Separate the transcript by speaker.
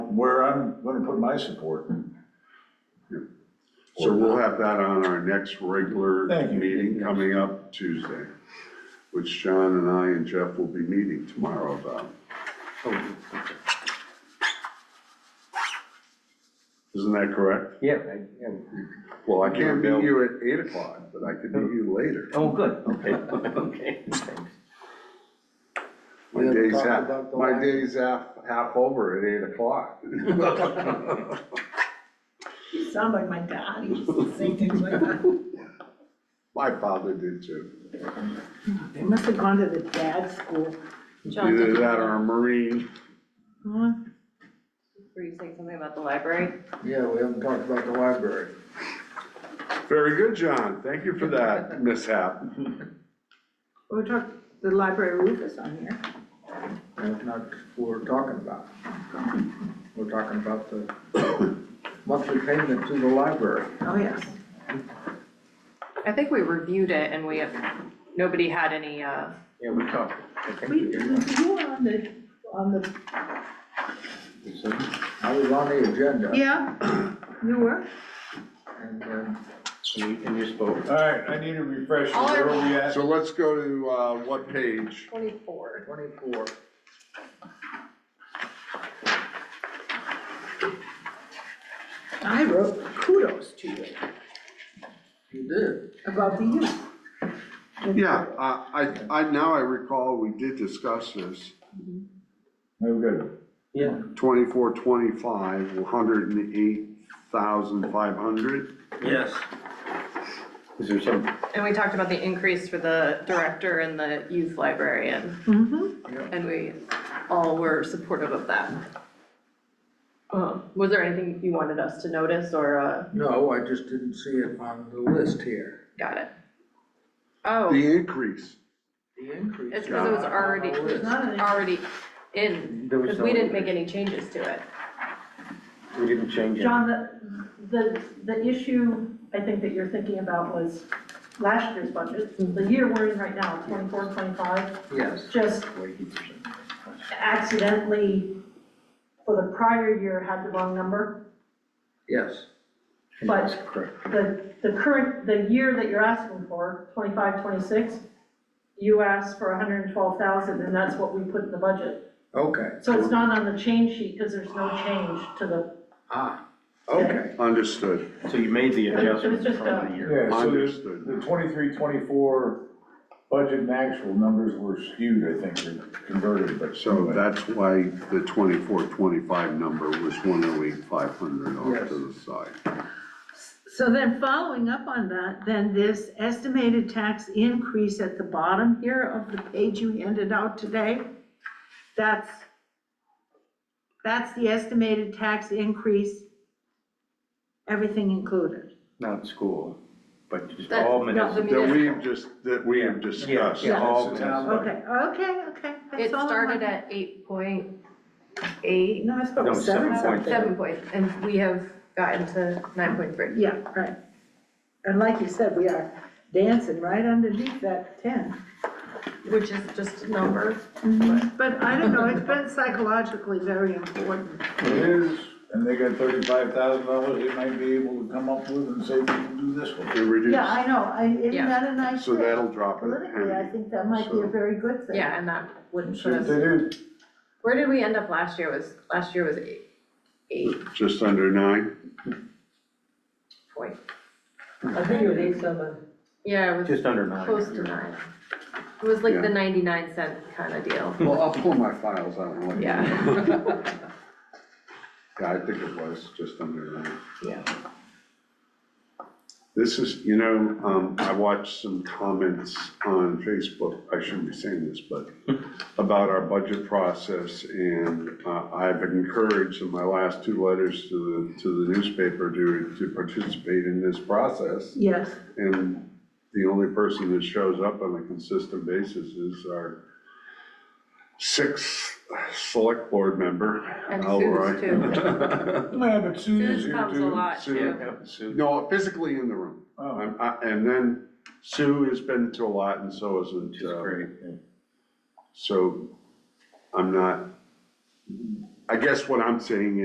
Speaker 1: where I'm gonna put my support.
Speaker 2: So we'll have that on our next regular
Speaker 1: Thank you.
Speaker 2: meeting coming up Tuesday, which John and I and Jeff will be meeting tomorrow about. Oh, Isn't that correct?
Speaker 3: Yeah, I- yeah.
Speaker 2: Well, I can't meet you at eight o'clock, but I could meet you later.
Speaker 3: oh, good, okay, okay, thanks.
Speaker 2: My
Speaker 4: We haven't
Speaker 2: day's
Speaker 4: talked
Speaker 2: half,
Speaker 4: about the
Speaker 2: my
Speaker 4: last-
Speaker 2: day's half, half over at eight o'clock.
Speaker 5: You sound like my dad, he used to say things like that.
Speaker 2: My father did too.
Speaker 5: They must have gone to the dad school.
Speaker 6: John,
Speaker 2: Either
Speaker 6: did
Speaker 2: that or a Marine.
Speaker 5: Huh?
Speaker 6: were you saying something about the library?
Speaker 4: Yeah, we haven't talked about the library.
Speaker 2: Very good, John. Thank you for that mishap.
Speaker 5: We talked, the library roof is on here.
Speaker 4: That's not what we're talking about. We're talking about the monthly payment to the library.
Speaker 5: Oh, yes.
Speaker 6: I think we reviewed it and we have, nobody had any, uh,
Speaker 3: Yeah, we talked, I think we
Speaker 5: We, you
Speaker 3: did.
Speaker 5: were on the, on the,
Speaker 4: I was on the agenda
Speaker 5: yeah, you were.
Speaker 4: and then
Speaker 3: And you- and you spoke.
Speaker 1: All right, I need a refresher,
Speaker 6: All
Speaker 1: where are
Speaker 6: right.
Speaker 1: we at?
Speaker 2: So let's go to, uh, what page?
Speaker 6: twenty-four.
Speaker 4: twenty-four,
Speaker 5: I wrote kudos to you
Speaker 4: you did.
Speaker 5: about the youth.
Speaker 2: Yeah, uh, I, I, now I recall, we did discuss this,
Speaker 1: No good.
Speaker 3: Yeah,
Speaker 2: twenty-four, twenty-five, one hundred and eight thousand five hundred.
Speaker 3: yes. Is there some,
Speaker 6: And we talked about the increase for the director and the youth librarian,
Speaker 5: Mm-hmm.
Speaker 6: and we all were supportive of that. Um, was there anything you wanted us to notice or, uh,
Speaker 4: No, I just didn't see it on the list here.
Speaker 6: got it? Oh,
Speaker 2: The increase,
Speaker 4: The increase.
Speaker 6: It's 'cause it was
Speaker 4: is not on
Speaker 6: already-
Speaker 4: the list.
Speaker 5: Not an,
Speaker 6: already in,
Speaker 3: There was
Speaker 6: because we didn't
Speaker 3: no-
Speaker 6: make any changes to it.
Speaker 3: we didn't change it.
Speaker 7: John, the, the, the issue I think that you're thinking about was last year's budget, the year we're in right now, 24, 25,
Speaker 4: Yes.
Speaker 7: just accidentally for the prior year had the wrong number.
Speaker 4: Yes,
Speaker 3: That's correct.
Speaker 7: The, the current, the year that you're asking for, 25, 26, you asked for hundred and twelve thousand, and that's what we put in the budget.
Speaker 4: okay,
Speaker 7: So it's not on the change sheet, because there's no change to the,
Speaker 4: ah, okay,
Speaker 2: understood,
Speaker 3: So you made the adjustment
Speaker 7: just
Speaker 3: from
Speaker 6: uh,
Speaker 7: a-
Speaker 3: the
Speaker 1: Yeah,
Speaker 3: year.
Speaker 1: so the,
Speaker 2: Understood.
Speaker 1: the twenty-three, twenty-four budget and actual numbers were skewed, I think, or converted, but.
Speaker 2: so that's why the twenty-four, twenty-five number was one oh eight five hundred off to the side.
Speaker 5: so then following up on that, then this estimated tax increase at the bottom here of the page you handed out today, that's, that's the estimated tax increase, everything included.
Speaker 3: Not school, but just
Speaker 6: That's
Speaker 3: all
Speaker 6: not
Speaker 3: municipal.
Speaker 6: the
Speaker 2: That
Speaker 6: municipal.
Speaker 2: we have just, that we have discussed.
Speaker 3: Yeah, all
Speaker 1: That's the town
Speaker 3: municipal.
Speaker 1: budget.
Speaker 5: Okay, okay, okay.
Speaker 6: It
Speaker 5: that's all I
Speaker 6: started
Speaker 5: wanted.
Speaker 6: at eight point eight,
Speaker 5: No, I thought it
Speaker 3: No,
Speaker 5: was seven
Speaker 3: seven point-
Speaker 5: something.
Speaker 6: seven point, and we have gotten to nine point three.
Speaker 5: Yeah, right. And like you said, we are dancing right underneath that ten.
Speaker 6: Which is just a number.
Speaker 5: But I don't know, it's been psychologically very important.
Speaker 1: It is, and they got thirty-five thousand dollars they might be able to come up with and say, we can do this one.
Speaker 2: It reduced,
Speaker 5: Yeah, I know, I, isn't
Speaker 6: Yeah.
Speaker 5: that a nice
Speaker 2: so
Speaker 5: thing?
Speaker 2: that'll drop it.
Speaker 5: Politically, I think that might be a very good thing.
Speaker 6: Yeah, and that wouldn't
Speaker 1: See
Speaker 6: put
Speaker 1: what they
Speaker 6: us,
Speaker 1: do.
Speaker 6: where did we end up last year was, last year was eight, eight
Speaker 2: Just under nine,
Speaker 6: point,
Speaker 8: I think it was eight seven.
Speaker 6: yeah, it was
Speaker 3: Just under nine.
Speaker 6: close to nine. It was like
Speaker 2: Yeah.
Speaker 6: the ninety-nine cent kind of deal,
Speaker 2: well, I'll pull my files out and let you know.
Speaker 6: yeah,
Speaker 2: Yeah, I think it was just under nine.
Speaker 6: yeah.
Speaker 2: This is, you know, um, I watched some comments on Facebook, I shouldn't be saying this, but about our budget process, and, uh, I've encouraged in my last two letters to the, to the newspaper to, to participate in this process.
Speaker 5: Yes,
Speaker 2: And the only person that shows up on a consistent basis is our sixth select board member.
Speaker 6: And
Speaker 2: Alroy.
Speaker 6: Sue's too.
Speaker 1: Yeah, but Sue's
Speaker 6: Suze
Speaker 1: here
Speaker 6: comes a
Speaker 1: too.
Speaker 6: lot too.
Speaker 3: Sue.
Speaker 2: No, physically in the room.
Speaker 1: Oh.
Speaker 2: Um, I- And then Sue has been to a lot and so
Speaker 3: Which
Speaker 2: isn't,
Speaker 3: is
Speaker 2: uh,
Speaker 3: great, yeah.
Speaker 2: so I'm not, I guess what I'm saying